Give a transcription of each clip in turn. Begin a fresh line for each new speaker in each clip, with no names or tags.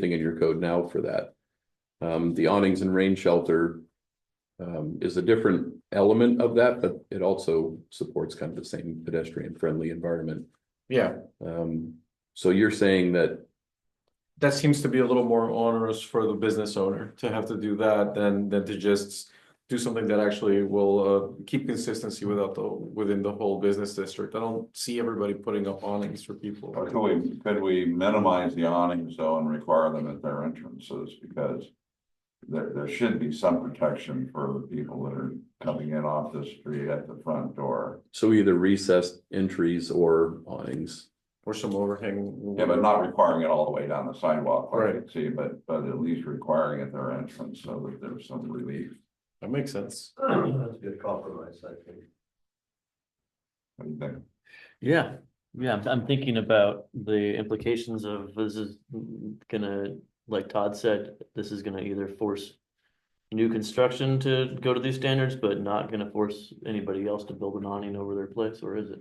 thing in your code now for that. Um, the awnings and rain shelter. Um, is a different element of that, but it also supports kind of the same pedestrian friendly environment.
Yeah,
Um, so you're saying that,
that seems to be a little more onerous for the business owner to have to do that than than to just. Do something that actually will uh keep consistency without the, within the whole business district. I don't see everybody putting up awnings for people.
Or could we, could we minimize the awnings though and require them at their entrances because. There, there should be some protection for the people that are coming in off the street at the front door.
so either recessed entries or awnings.
Or some overhang.
Yeah, but not requiring it all the way down the sidewalk, like I
Right.
see, but, but at least requiring at their entrance so that there's some relief.
That makes sense.
That's a good compromise, I think.
What do you think?
Yeah, yeah, I'm, I'm thinking about the implications of this is gonna, like Todd said, this is gonna either force. New construction to go to these standards, but not gonna force anybody else to build an awning over their place, or is it?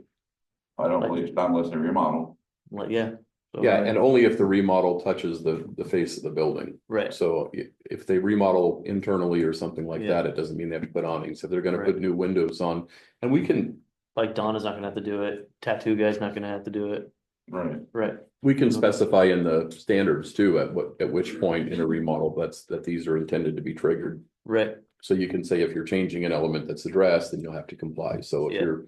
I don't believe, not unless they remodel.
Like, yeah. so-
Yeah, and only if the remodel touches the, the face of the building.
Right,
So i- if they remodel internally or something like
Yeah.
that, it doesn't mean they have to put awnings. If they're gonna
Right.
put new windows on, and we can,
like Donna's not gonna have to do it, tattoo guy's not gonna have to do it,
Right.
right,
we can specify in the standards too, at what, at which point in a remodel, that's, that these are intended to be triggered.
right,
So you can say if you're changing an element that's addressed, then you'll have to comply. So if
Yeah.
you're,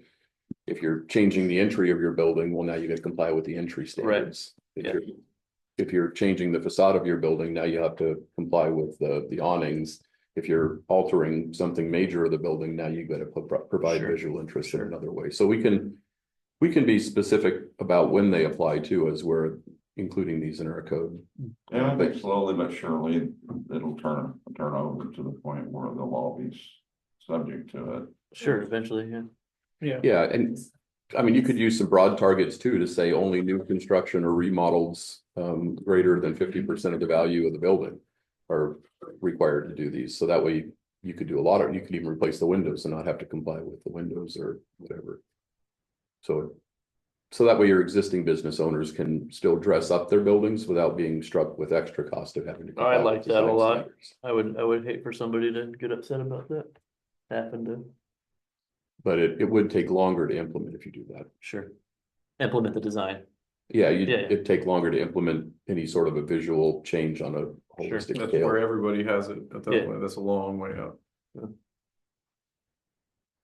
if you're changing the entry of your building, well, now you gotta comply with the entry standards. If
Yeah.
you're- If you're changing the facade of your building, now you have to comply with the, the awnings. If you're altering something major of the building, now you gotta pro- pro- provide
Sure.
visual interest in
Sure.
another way. So we can, we can be specific about when they apply to as we're including these in our code.
And I think slowly but surely it'll turn, turn over to the point where they'll all be s- subject to it.
sure, eventually, yeah.
Yeah, and I mean, you could use some broad targets too to say only new construction or remodels um greater than fifty percent of the value of the building. Are required to do these, so that way you could do a lot of, you could even replace the windows and not have to comply with the windows or whatever. So. So that way your existing business owners can still dress up their buildings without being struck with extra cost of having to. comply with
like that a
design
lot.
standards.
I would, I would hate for somebody to get upset about that, happen to,
But it it would take longer to implement if you do that.
sure. Implement the design,
Yeah, you,
Yeah, yeah.
it'd take longer to implement any sort of a visual change on a
Sure.
holistic
That's
scale.
where everybody has it at
Yeah.
that point. That's a long way out.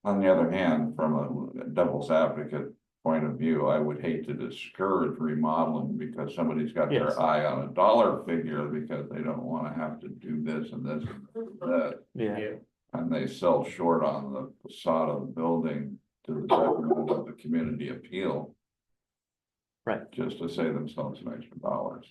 On the other hand, from a devil's advocate point of view, I would hate to discourage remodeling because somebody's got
Yes.
their eye on a dollar figure because they don't wanna have to do this and this and that.
yeah.
And they sell short on the facade of the building to the detriment of the community appeal.
Right.
Just to save themselves an extra dollars.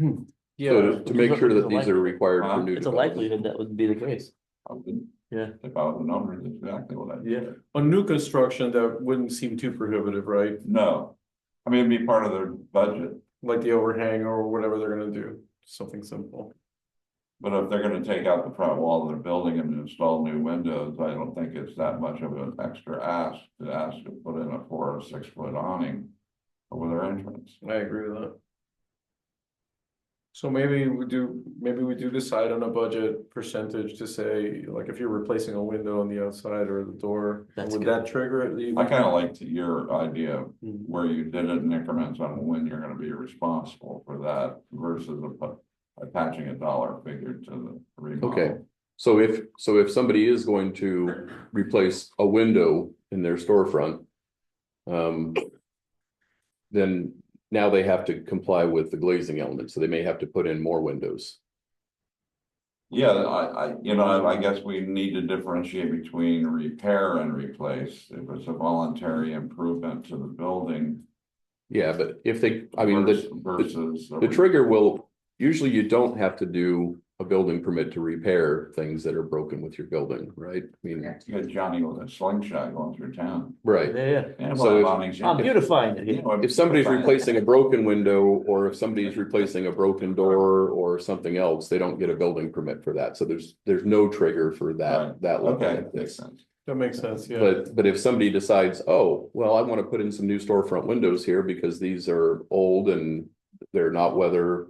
So to- to make sure that
It's a
these are
likely-
required for
Huh?
new.
It's a
development.
likelihood that would be the case.
I wouldn't-
Yeah.
If I was a number, that's exactly what I'd do.
Yeah. On new construction, that wouldn't seem too prohibitive, right?
No, I mean, it'd be part of their budget.
Like the overhang or whatever they're gonna do, something simple.
But if they're gonna take out the front wall of their building and install new windows, I don't think it's that much of an extra ask to ask to put in a four or six foot awning. Over their entrance.
I agree with that. So maybe we do, maybe we do decide on a budget percentage to say, like, if you're replacing a window on the outside or the door,
That's
would
good.
that trigger it? Do you
I
think?
kinda liked your idea of
Mhm.
where you did it in increments on when you're gonna be responsible for that versus a- attaching a dollar figure to the
Okay.
remodel.
So if, so if somebody is going to replace a window in their storefront. Um. Then now they have to comply with the glazing element, so they may have to put in more windows.
Yeah, I, I, you know, I guess we need to differentiate between repair and replace. If it's a voluntary improvement to the building.
Yeah, but if they, I mean, the,
vers- Versus.
The trigger will, usually you don't have to do a building permit to repair things that are broken with your building, right? I mean,
You got Johnny with a slingshot going through town.
right,
Yeah, yeah.
And
So if-
bombing.
I'm beautifying it.
You
yeah.
know,
if somebody's replacing a broken window, or if somebody's replacing a broken door or something else, they don't get a building permit for that, so there's, there's no trigger for that,
Right.
that. level
Okay,
of things.
makes sense.
That makes sense, yeah.
But, but if somebody decides, oh, well, I wanna put in some new storefront windows here because these are old and they're not weather